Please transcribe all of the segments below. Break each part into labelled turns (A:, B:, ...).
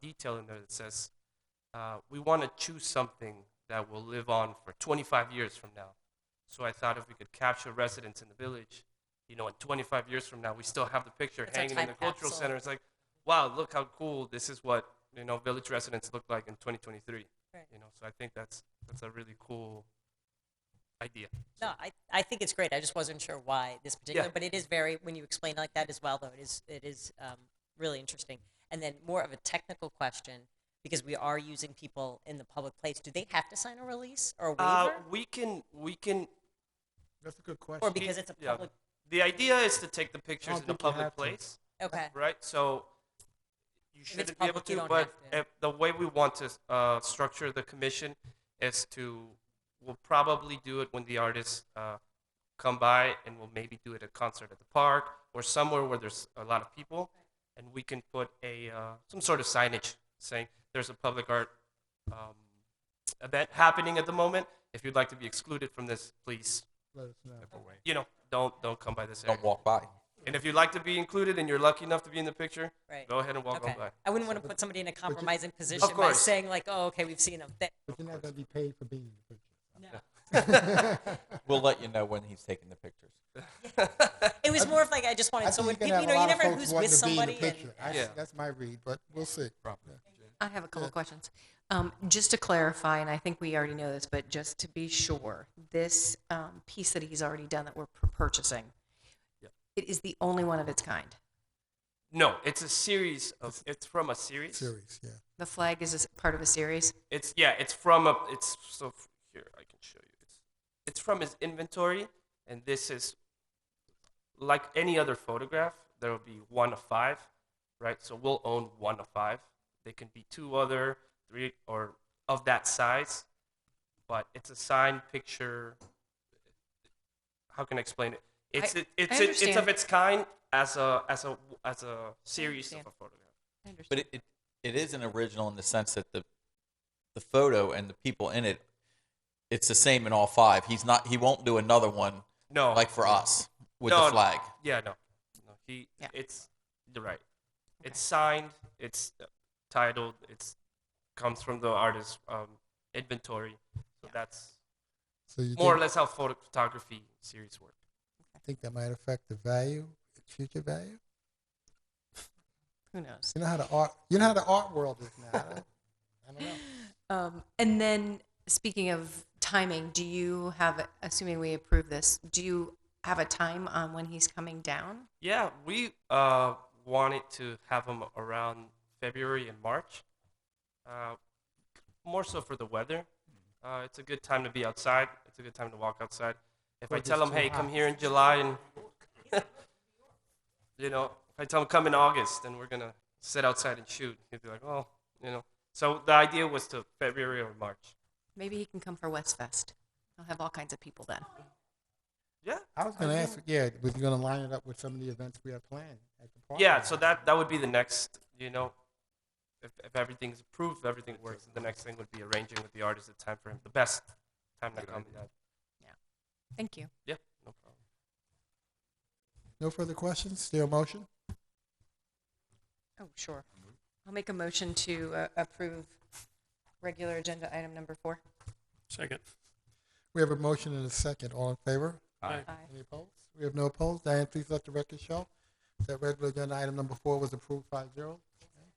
A: detail in there that says, uh, we want to choose something that will live on for 25 years from now. So I thought if we could capture residents in the village, you know, in 25 years from now, we still have the picture
B: It's our
A: hanging in the
B: time
A: cultural
B: capsule.
A: center. It's like, wow, look how cool this is what you know village residents look like in 2023.
B: Right.
A: You know, so I think that's that's a really cool idea.
B: No, I, I think it's great. I just wasn't sure why this particular, but it is very, when you explain it like that as well, though, it is, it is um, really interesting. And then more of a technical question, because we are using people in the public place, do they have to sign a release or a
A: Uh,
B: waiver?
A: we can we can
C: That's a good
B: Or
C: question.
B: because it's a
A: yeah.
B: public,
A: The idea is to take the pictures in a
C: think you
A: public
C: have to.
A: place,
B: okay,
A: right? So you
B: it's
A: shouldn't
B: public,
A: be
B: you
A: able
B: don't
A: to, but
B: have to.
A: if the way we want to uh, structure the commission is to we'll probably do it when the artists uh, come by, and we'll maybe do it at a concert at the park or somewhere where there's a lot of people, and we can put a uh, some sort of signage saying there's a public art um, event happening at the moment. If you'd like to be excluded from this, please,
C: Let us know.
A: you know, don't don't come by this area.
D: Don't walk by.
A: And if you'd like to be included and you're lucky enough to be in the picture,
B: right.
A: go ahead and walk
B: Okay.
A: on by.
B: I wouldn't want to put somebody in a compromising position by
A: course.
B: saying like, oh, okay, we've seen them.
C: But you're not going to be paid for being in the picture.
D: We'll let you know when he's taking the pictures.
B: It was more of like, I just
C: I
B: wanted
C: think
B: someone,
C: you're
B: you know,
C: gonna
B: you
C: have a lot of
B: never know
C: folks
B: who's
C: wanting
B: with
C: to be in the
B: somebody and.
C: picture. I-
A: Yeah.
C: That's my read, but we'll see.
E: I have a couple questions. Um, Just to clarify, and I think we already know this, but just to be sure, this um, piece that he's already done that we're pur- purchasing, it is the only one of its kind.
A: No, it's a series of. It's from a series.
C: Series, yeah.
E: The flag is a s- part of a series.
A: It's yeah. It's from a. It's so f- here I can show you. It's it's from his inventory, and this is like any other photograph. There will be one of five, right? So we'll own one of five. They can be two other, three, or of that size, but it's a signed picture. How can I explain it? It's it, it's it, it's of
E: understand.
A: its kind as a as a as a series of a
E: understand.
A: photograph.
E: I understand.
D: But it, it, it is an original in the sense that the the photo and the people in it, it's the same in all five. He's not. He won't do another one
A: No,
D: like for us with
A: No,
D: the
A: no.
D: flag.
A: Yeah, no, no. He,
E: Yeah.
A: it's you're right. It's signed. It's uh, titled. It's comes from the artist's um, inventory. So that's
C: So you
A: more or
C: think,
A: less how photo- photography series work.
C: think that might affect the value, future value?
E: Who knows?
C: You know how the art, you know how the art world is now. I don't- I don't know.
E: Um, And then, speaking of timing, do you have, assuming we approve this, do you have a time on when he's coming down?
A: Yeah, we uh, wanted to have them around February and March, uh, more so for the weather. Uh, it's a good time to be outside. It's a good time to walk outside. If I
C: Or
A: tell
C: just
A: them,
C: too
A: hey, come
C: hot.
A: here in July, and you know, if I tell them come in August, then we're gonna sit outside and shoot. He'd be like, oh, you know. So the idea was to February or March.
E: Maybe he can come for West Fest. I'll have all kinds of people then.
A: Yeah,
C: I was going to ask, yeah, was you going to line it up with some of the events we have planned at the park?
A: yeah. So that that would be the next, you know. If, if everything's approved, if everything works, the next thing would be arranging with the artist a time for him. The best time to come. Yeah,
E: Thank you.
A: yeah no problem.
C: No further questions? Still motion?
E: Oh, sure. I'll make a motion to uh, approve regular agenda item number four.
F: Second.
C: We have a motion and a second. All in favor?
F: Aye.
E: Aye.
C: Any opposed? We have no opposed. Diane, please let the record show that regular agenda item number four was approved 5-0.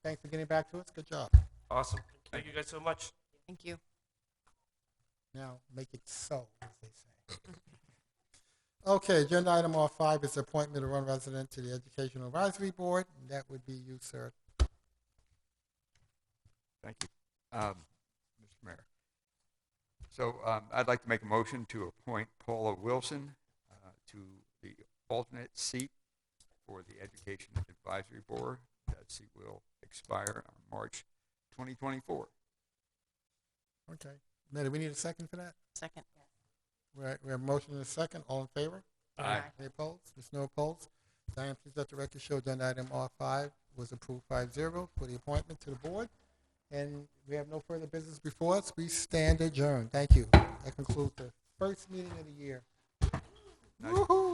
C: Thanks for getting back to us. Good job.
A: Awesome. Thank you guys so much.
E: Thank you.
C: Now make it so, as they say. Okay, agenda item R five is appointment of one resident to the Educational Advisory Board. and That would be you, sir.
G: Thank you. Um, Mr. Mayor. So um, I'd like to make a motion to appoint Paula Wilson uh, to the alternate seat for the Education Advisory Board. That seat will expire on March 2024.
C: Okay. Now, do we need a second for that?
E: Second.
C: We have- we have a motion and a second. All in favor?
F: Aye.
C: Any opposed? There's no opposed. Diane, please let the record show agenda item R five was approved 5-0 for the appointment to the board. And we have no further business before us. We stand adjourned. Thank you. That concludes the first meeting of the year.
G: Nice.
C: Woo-hoo.